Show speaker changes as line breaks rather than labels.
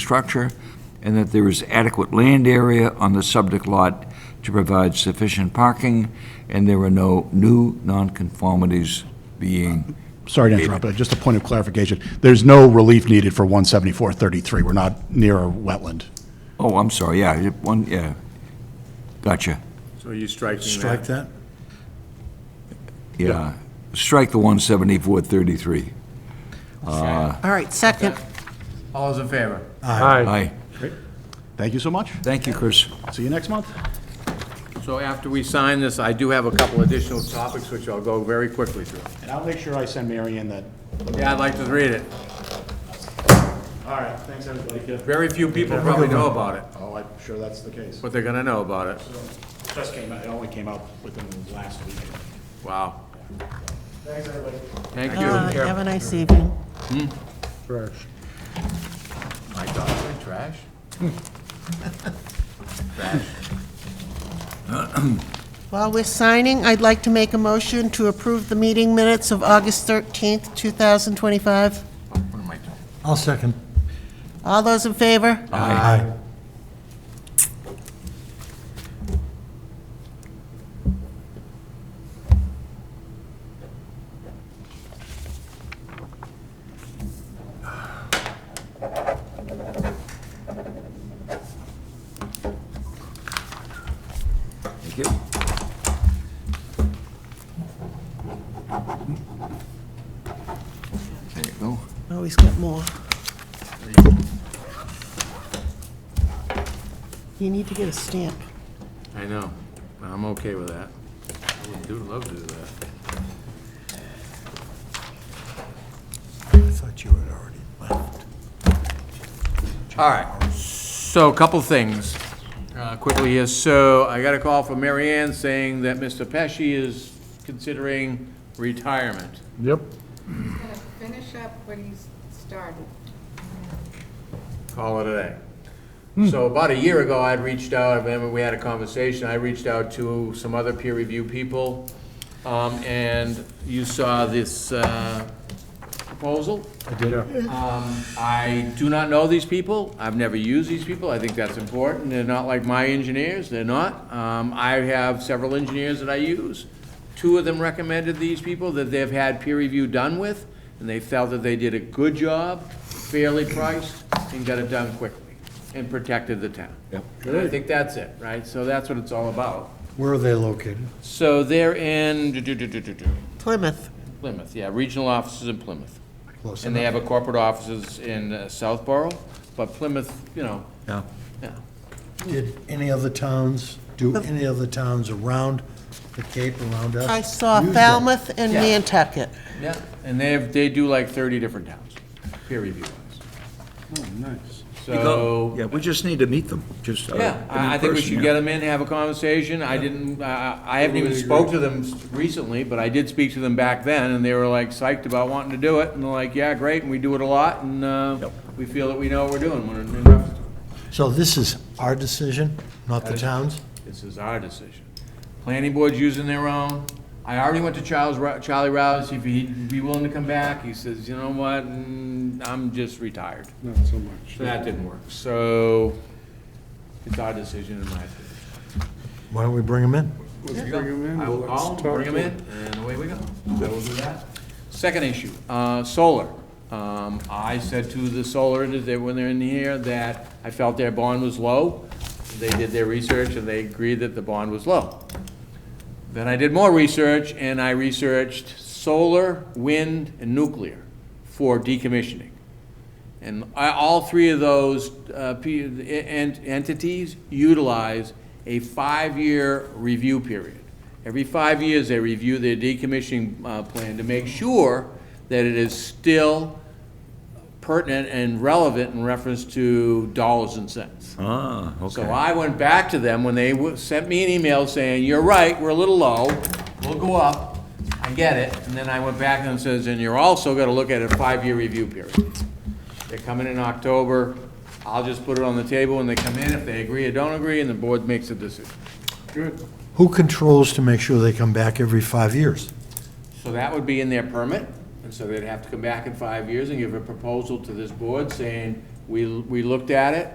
structure, and that there is adequate land area on the subject lot to provide sufficient parking, and there are no new nonconformities being,
Sorry to interrupt, but just a point of clarification. There's no relief needed for 17433. We're not near a wetland.
oh, I'm sorry, yeah, you- one, yeah, gotcha,
So are you striking that?
Strike that?
yeah. Strike the 17433.
All right, second.
All those in favor?
Aye.
Thank you so much.
Thank you, Chris.
See you next month.
So after we sign this, I do have a couple additional topics, which I'll go very quickly through.
And I'll make sure I send Mary in that.
Yeah, I'd like to read it.
All right, thanks, everybody.
Very few people probably know about it,
Oh, I'm sure that's the case.
but they're gonna know about it.
Just came out, it only came out within the last week.
Wow.
Thanks, everybody.
Thank
Uh,
you.
Have a nice evening.
My dogs are trash? Trash.
While we're signing, I'd like to make a motion to approve the meeting minutes of August 13th, 2025.
What am I doing?
I'll second.
All those in favor?
Aye.
Thank you. There you go.
Always get more. You need to get a stamp.
I know. I'm okay with that. I would do, love to do that.
I thought you had already left.
All right. So a couple things, uh, quickly here. So I got a call from Mary Ann saying that Mr. Pesci is considering retirement.
Yep.
gonna finish up what he's started.
call it a day. So about a year ago, I'd reached out, I remember we had a conversation, I reached out to some other peer review people, um, and you saw this, uh, proposal. I did. Um, I do not know these people, I've never used these people, I think that's important, they're not like my engineers, they're not. Um, I have several engineers that I use. Two of them recommended these people that they've had peer review done with, and they felt that they did a good job, fairly priced, and got it done quickly, and protected the town. Yep. And I think that's it, right? So that's what it's all about.
Where are they located?
So they're in do, do, do, do, do, do,
Plymouth.
Plymouth, yeah, regional offices in Plymouth.
Close
And they have a corporate offices in uh, Southborough, but Plymouth, you know,
Yeah.
yeah.
Did any other towns, do any other towns around the Cape, around us?
I saw
use that?
Falmouth and
Yeah.
Nantucket.
Yeah, and they have, they do like thirty different towns, peer review wise. So,
Yeah, we just need to meet them, just. uh,
yeah, I, I think we
in person,
should
yeah.
get them in, have a conversation. I didn't, I, I haven't even spoke to them s- recently, but I did speak to them back then, and they were like psyched about wanting to do it, and they're like, yeah, great, and we do it a lot, and, uh,
Yep.
we feel that we know what we're doing. We're enough-
So this is our decision, not the town's?
This is our decision. Planning board's using their own. I already went to Charles, Rou- Charlie Rouse, if he'd be willing to come back, he says, you know what, mm, I'm just retired. Not so much. So that didn't work, so it's our decision in my opinion.
Why don't we bring them in?
I will call, bring them in, and away we go. So we'll do that. Second issue, uh, solar. Um, I said to the solar, that when they're in here, that I felt their bond was low. They did their research and they agreed that the bond was low. Then I did more research, and I researched solar, wind, and nuclear for decommissioning. And I- all three of those uh, p- en- entities utilize a five-year review period. Every five years, they review their decommissioning uh, plan to make sure that it is still pertinent and relevant in reference to dollars and cents.
Ah,
So
okay.
I went back to them when they w- sent me an email saying, you're right, we're a little low, we'll go up, I get it. And then I went back and says, and you're also gonna look at a five-year review period. They're coming in October, I'll just put it on the table when they come in, if they agree or don't agree, and the board makes a decision.
Who controls to make sure they come back every five years?
So that would be in their permit, and so they'd have to come back in five years and give a proposal to this board saying, We, we looked at it,